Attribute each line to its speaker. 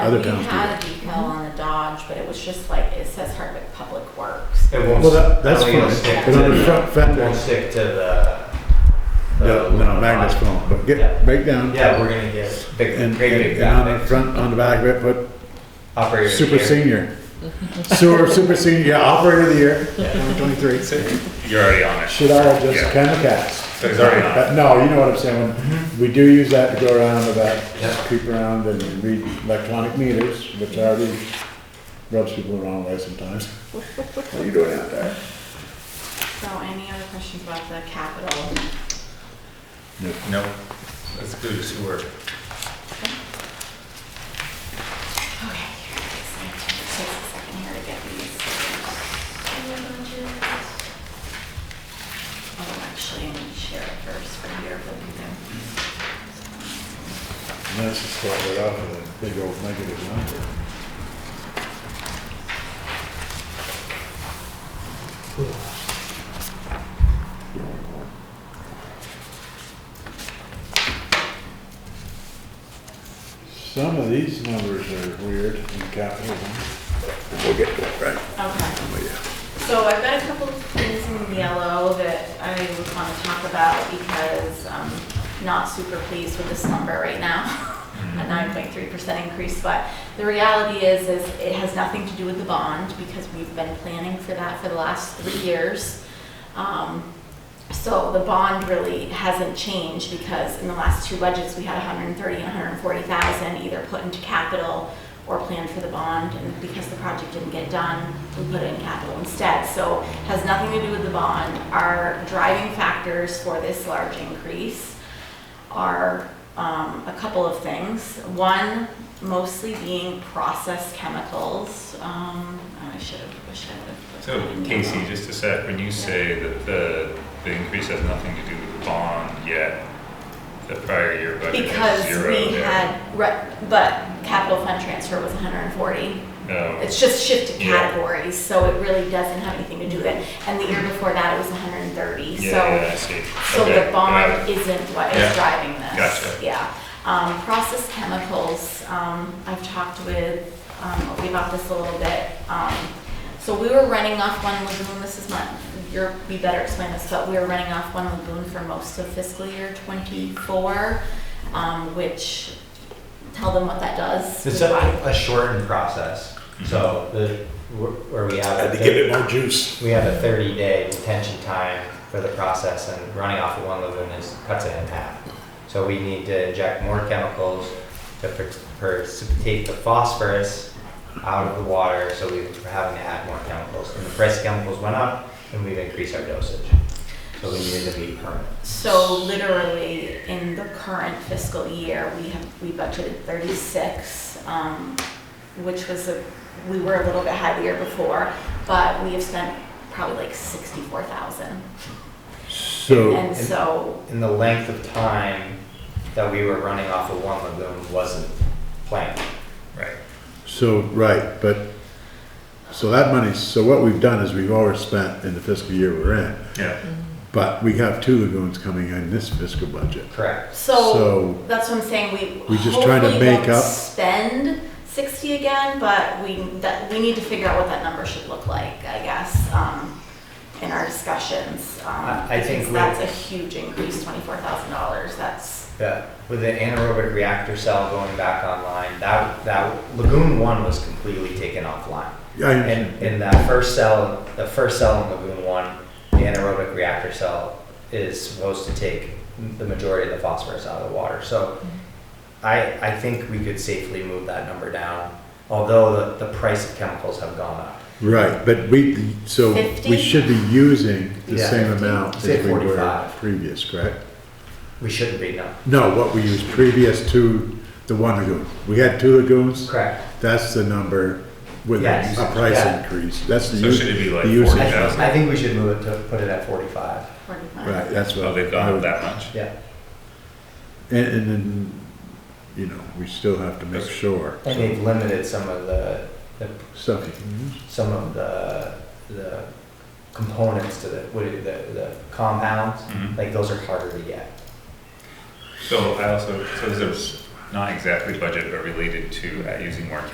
Speaker 1: Other
Speaker 2: I think
Speaker 1: towns
Speaker 2: it
Speaker 1: do
Speaker 2: had a decal on the Dodge, but it was just like, it says Hardwick Public Works.
Speaker 3: It won't.
Speaker 1: Well, that, that's
Speaker 3: I mean, it'll
Speaker 1: fine,
Speaker 3: stick
Speaker 1: but
Speaker 3: to
Speaker 1: on the
Speaker 3: the-
Speaker 1: front,
Speaker 3: It
Speaker 1: front
Speaker 3: won't
Speaker 1: one,
Speaker 3: stick to the. the
Speaker 1: no, no, magnet's gone, but
Speaker 3: Yeah.
Speaker 1: get, break down.
Speaker 3: Yeah, we're gonna get big,
Speaker 1: And,
Speaker 3: great big
Speaker 1: and on the
Speaker 3: graphics.
Speaker 1: front, on the back of it, put
Speaker 3: Operator of the
Speaker 1: super
Speaker 3: year.
Speaker 1: senior. Sewer super senior, yeah, operator of the year, twenty twenty-three.
Speaker 4: You're already on it.
Speaker 1: Should all just
Speaker 4: Yeah.
Speaker 1: kind of cast.
Speaker 4: It's already on.
Speaker 1: But no, you know what I'm saying, when we do use that to go around about,
Speaker 3: Mm-hmm. Yeah.
Speaker 1: creep around and read electronic meters, which already rubs people the wrong way sometimes. What are you doing out there?
Speaker 2: So any other questions about the capital?
Speaker 4: No, let's do the sewer.
Speaker 2: Okay, here, it's like, it takes a second here to get these. Oh, actually, I need to share it first for here, but there.
Speaker 1: And that's just start it off with a big old negative number. Some of these numbers are weird in capital. We'll get to it, right?
Speaker 2: Okay. So I've got a couple of things in yellow that I want to talk about because I'm not super pleased with this number right now, a 9.3% increase. But the reality is, is it has nothing to do with the bond because we've been planning for that for the last three years. Um, So the bond really hasn't changed because in the last two budgets, we had 130 and 140,000 either put into capital or planned for the bond, and because the project didn't get done, we put it in capital instead. So it has nothing to do with the bond. Our driving factors for this large increase are um, a couple of things. One, mostly being processed chemicals. Um, I should have, wish I would have.
Speaker 4: So Casey, just a sec, when you say that the, the increase has nothing to do with the bond yet, the prior year budget was
Speaker 2: Because
Speaker 4: zero.
Speaker 2: we
Speaker 4: there.
Speaker 2: had, re- but capital fund transfer was 140.
Speaker 4: No,
Speaker 2: It's just shifted
Speaker 4: Yeah.
Speaker 2: categories, so it really doesn't have anything to do with it. And the year before that, it was 130,
Speaker 4: yeah,
Speaker 2: so,
Speaker 4: yeah, I see.
Speaker 2: so
Speaker 4: Okay,
Speaker 2: the
Speaker 4: got it.
Speaker 2: bond isn't what is
Speaker 4: Yeah.
Speaker 2: driving this.
Speaker 4: Gotcha.
Speaker 2: Yeah. Um, processed chemicals, um, I've talked with, um, Obi about this a little bit. Um, so we were running off one lagoon, this is not, you're, we better explain this, but we were running off one lagoon for most of fiscal year twenty-four, um, which, tell them what that does.
Speaker 3: It's a, a shortened process, so the, where we have.
Speaker 1: Had
Speaker 3: a
Speaker 1: to give it more juice.
Speaker 3: We have a thirty day detention time for the process and running off of one lagoon is, cuts it in half. So we need to inject more chemicals to per- precipitate the phosphorus out of the water, so we- we're having to add more chemicals. And the price of chemicals went up and we've increased our dosage. So we needed to be permanent.
Speaker 2: So literally, in the current fiscal year, we have, we budgeted thirty-six, um, which was a, we were a little bit high the year before, but we have spent probably like sixty-four thousand.
Speaker 1: So,
Speaker 2: And so,
Speaker 3: And the length of time that we were running off of one lagoon wasn't planned.
Speaker 4: Right,
Speaker 1: so, right, but, so that money, so what we've done is we've overspent in the fiscal year we're in.
Speaker 4: yeah,
Speaker 1: But we have two lagoons coming in this fiscal budget.
Speaker 3: Correct.
Speaker 2: so,
Speaker 1: So,
Speaker 2: that's what I'm saying, we
Speaker 1: We just trying to
Speaker 2: hopefully
Speaker 1: make
Speaker 2: won't
Speaker 1: up-
Speaker 2: spend sixty again, but we, that, we need to figure out what that number should look like, I guess, um, in our discussions. um,
Speaker 3: I- I think
Speaker 2: because
Speaker 3: we-
Speaker 2: That's a huge increase, twenty-four thousand dollars, that's.
Speaker 3: The, with the anaerobic reactor cell going back online, that, that lagoon one was completely taken offline.
Speaker 1: I,
Speaker 3: And, and that first cell, the first cell in lagoon one, the anaerobic reactor cell is supposed to take the majority of the phosphorus out of the water. So I, I think we could safely move that number down, although the, the price of chemicals have gone up.
Speaker 1: right, but we, so
Speaker 2: Fifty?
Speaker 1: we should be using the
Speaker 3: Yeah.
Speaker 1: same amount as
Speaker 3: Say
Speaker 1: we were
Speaker 3: 45.
Speaker 1: previous, correct?
Speaker 3: We shouldn't be, no.
Speaker 1: No, what we used previous to the one lagoon. We had two lagoons,
Speaker 3: Correct.
Speaker 1: that's the number with
Speaker 3: Yes.
Speaker 1: a price
Speaker 3: Yeah.
Speaker 1: increase. That's the.
Speaker 4: So
Speaker 1: use-
Speaker 4: should it be like
Speaker 1: the usage.
Speaker 3: I,
Speaker 4: 40,000?
Speaker 3: I think we should move it to, put it at forty-five.
Speaker 2: forty-five.
Speaker 1: Right, that's what.
Speaker 4: so Oh, they've
Speaker 1: I
Speaker 4: gone
Speaker 1: would-
Speaker 4: that much?
Speaker 3: Yeah.
Speaker 1: And, and then, you know, we still have to make sure
Speaker 3: And they've limited some of the, the
Speaker 1: stuff you can use.
Speaker 3: some of the, the components to the, what, do you- the, the compounds,
Speaker 4: Mhm.
Speaker 3: like those are harder to get.
Speaker 4: So I also, so there's not exactly budget, but related to uh, using more